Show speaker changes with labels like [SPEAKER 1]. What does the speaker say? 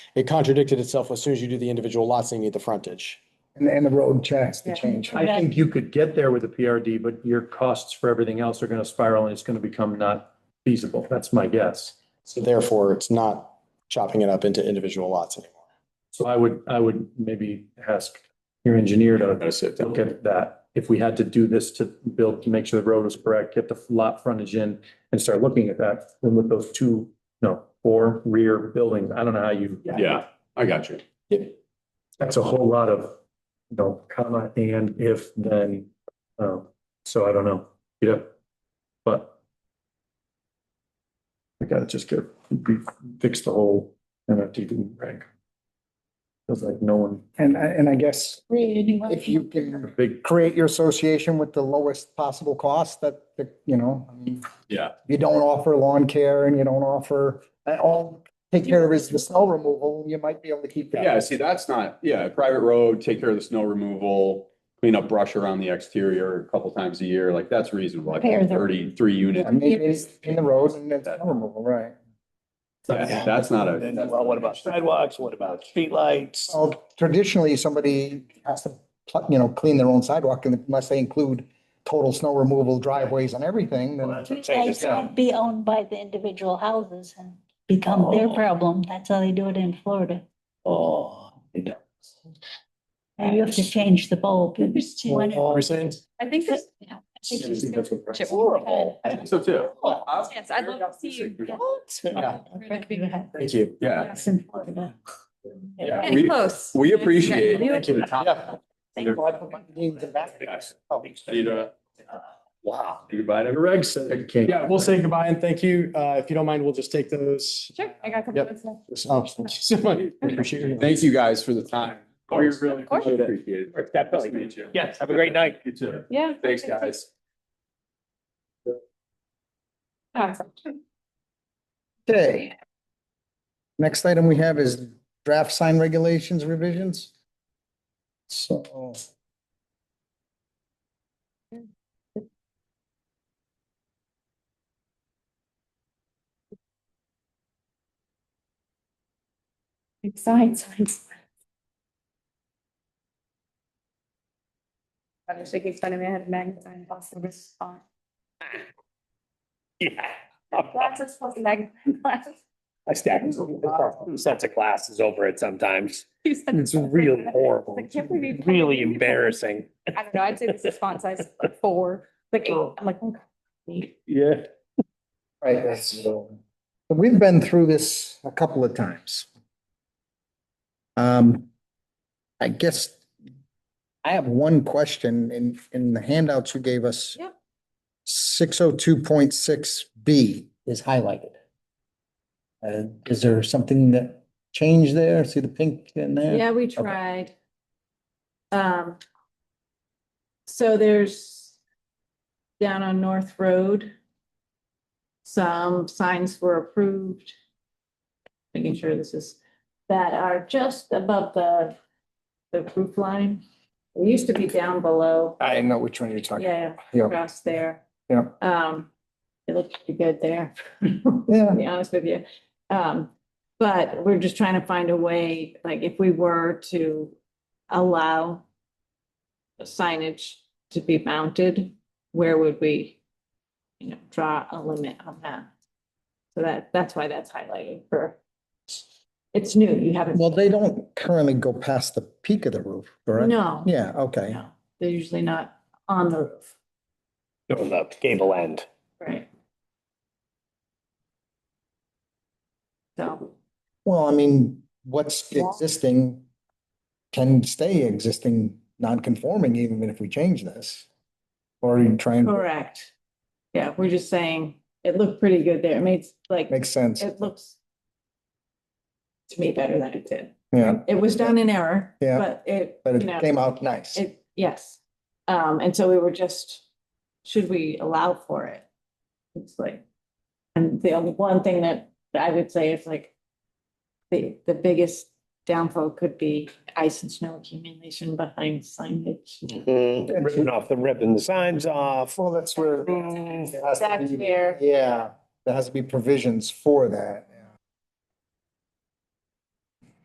[SPEAKER 1] it contradicted itself as soon as you do the individual lots and you need the frontage.
[SPEAKER 2] And, and the road checks
[SPEAKER 3] Yeah.
[SPEAKER 2] to change.
[SPEAKER 4] I think you could get there with a PRD, but your costs for everything else are gonna spiral and it's gonna become not feasible. That's my guess.
[SPEAKER 1] So therefore, it's not chopping it up into individual lots anymore.
[SPEAKER 4] So I would, I would maybe ask your engineer to
[SPEAKER 5] That's it.
[SPEAKER 4] look at that. If we had to do this to build, to make sure the road was correct, get the lot frontage in and start looking at that, then with those two, no, four rear buildings, I don't know how you.
[SPEAKER 5] Yeah, I got you.
[SPEAKER 4] That's a whole lot of, you know, comma, and if, then, um, so I don't know, yeah, but. I gotta just get, fix the whole MFTD rank. Feels like no one,
[SPEAKER 2] And, I- and I guess if
[SPEAKER 3] If
[SPEAKER 2] you can
[SPEAKER 4] big,
[SPEAKER 2] create your association with the lowest possible cost that, that, you know, I mean,
[SPEAKER 5] Yeah.
[SPEAKER 2] you don't offer lawn care and you don't offer, and all, take care of is the snow removal, you might be able to keep. the-
[SPEAKER 5] Yeah, see, that's not, yeah, private road, take care of the snow removal, clean up brush around the exterior a couple times a year, like that's reasonable. Like
[SPEAKER 3] Repair the-
[SPEAKER 5] thirty-three units,
[SPEAKER 2] And maybe it's in the road and then snow removal, right?
[SPEAKER 5] that's that's not
[SPEAKER 6] Then,
[SPEAKER 5] a,
[SPEAKER 6] well, what about sidewalks? What about streetlights?
[SPEAKER 2] Well, traditionally, somebody has to, pl- you know, clean their own sidewalk and unless they include total snow removal driveways and everything,
[SPEAKER 6] Well,
[SPEAKER 2] then
[SPEAKER 6] that's what I'm saying, it's not-
[SPEAKER 3] can't be owned by the individual houses and become their
[SPEAKER 6] Oh.
[SPEAKER 3] problem. That's how they do it in Florida.
[SPEAKER 6] Oh, it don't.
[SPEAKER 3] And you have to change the bulb. It's one-
[SPEAKER 1] saying?
[SPEAKER 7] I think this.
[SPEAKER 3] Yeah.
[SPEAKER 7] It's
[SPEAKER 6] Horrible.
[SPEAKER 7] horrible.
[SPEAKER 5] so too.
[SPEAKER 7] Yes, I'd love to see you.
[SPEAKER 1] Thank you.
[SPEAKER 5] Yeah,
[SPEAKER 3] It's in Florida.
[SPEAKER 5] yeah,
[SPEAKER 7] Getting
[SPEAKER 5] we,
[SPEAKER 7] close.
[SPEAKER 5] we appreciate.
[SPEAKER 7] Thank
[SPEAKER 5] you.
[SPEAKER 6] Wow.
[SPEAKER 5] Goodbye to everyone.
[SPEAKER 4] Greg said it can't.
[SPEAKER 1] Yeah, we'll say goodbye and thank you. Uh, if you don't mind, we'll just take those.
[SPEAKER 7] Sure, I got a couple
[SPEAKER 1] Yep.
[SPEAKER 7] minutes left.
[SPEAKER 1] Oh, thank you so much. Appreciate it.
[SPEAKER 5] Thank you guys for the time.
[SPEAKER 6] oh,
[SPEAKER 5] We really
[SPEAKER 7] course.
[SPEAKER 5] appreciate it.
[SPEAKER 6] Definitely.
[SPEAKER 5] Nice to meet you.
[SPEAKER 6] Yes, have a great night.
[SPEAKER 5] You too.
[SPEAKER 7] Yeah.
[SPEAKER 5] Thanks, guys.
[SPEAKER 7] Awesome.
[SPEAKER 2] Okay. Next item we have is draft sign regulations revisions. So.
[SPEAKER 7] Sign, sign. sign. I was thinking, funny, I had a magnifying glass and this on.
[SPEAKER 6] Yeah.
[SPEAKER 7] Glasses plus magnifying glasses.
[SPEAKER 6] I stack sets of glasses over it sometimes.
[SPEAKER 7] You said-
[SPEAKER 6] It's really horrible.
[SPEAKER 7] I can't believe you-
[SPEAKER 6] Really embarrassing.
[SPEAKER 7] I don't know, I'd say this is font size four, like, eight. I'm like, oh, God.
[SPEAKER 6] Yeah.
[SPEAKER 2] Right, that's- We've been through this a couple of times. Um, I guess I have one question in, in the handouts you gave us.
[SPEAKER 7] Yep.
[SPEAKER 2] Six oh two point six B is highlighted. Uh, is there something that changed there? See the pink in there?
[SPEAKER 8] Yeah, we tried. Um, so there's down on North Road, some signs were approved. Making sure this is, that are just above the, the roof line. It used to be down below,
[SPEAKER 2] I know which one you're talking.
[SPEAKER 8] yeah,
[SPEAKER 2] Yeah.
[SPEAKER 8] across there.
[SPEAKER 2] Yeah.
[SPEAKER 8] Um, it looked pretty good there.
[SPEAKER 2] Yeah,
[SPEAKER 8] to be honest with you. Um, but we're just trying to find a way, like if we were to allow signage to be mounted, where would we, you know, draw a limit on that? So that, that's why that's highlighted for, it's new, you haven't.
[SPEAKER 2] well, they don't currently go past the peak of the roof, correct?
[SPEAKER 8] No,
[SPEAKER 2] Yeah, okay.
[SPEAKER 8] no, they're usually not on the roof,
[SPEAKER 6] On the gable end.
[SPEAKER 8] right? So.
[SPEAKER 2] Well, I mean, what's existing can stay existing, non-conforming even if we change this. Or you try and
[SPEAKER 8] Correct. Yeah, we're just saying, it looked pretty good there. It made like,
[SPEAKER 2] make sense.
[SPEAKER 8] it looks to me better than it did.
[SPEAKER 2] Yeah,
[SPEAKER 8] It was done in error,
[SPEAKER 2] Yeah.
[SPEAKER 8] but it,
[SPEAKER 2] but
[SPEAKER 8] you know,
[SPEAKER 2] it came out nice.
[SPEAKER 8] it, yes. Um, and so we were just, should we allow for it? It's like, and the only one thing that I would say is like, the, the biggest downfall could be ice and snow accumulation behind signage.
[SPEAKER 6] Ripping off the ripping the signs off.
[SPEAKER 2] Well, that's where.
[SPEAKER 8] That's where-
[SPEAKER 2] Yeah, there has to be provisions for that.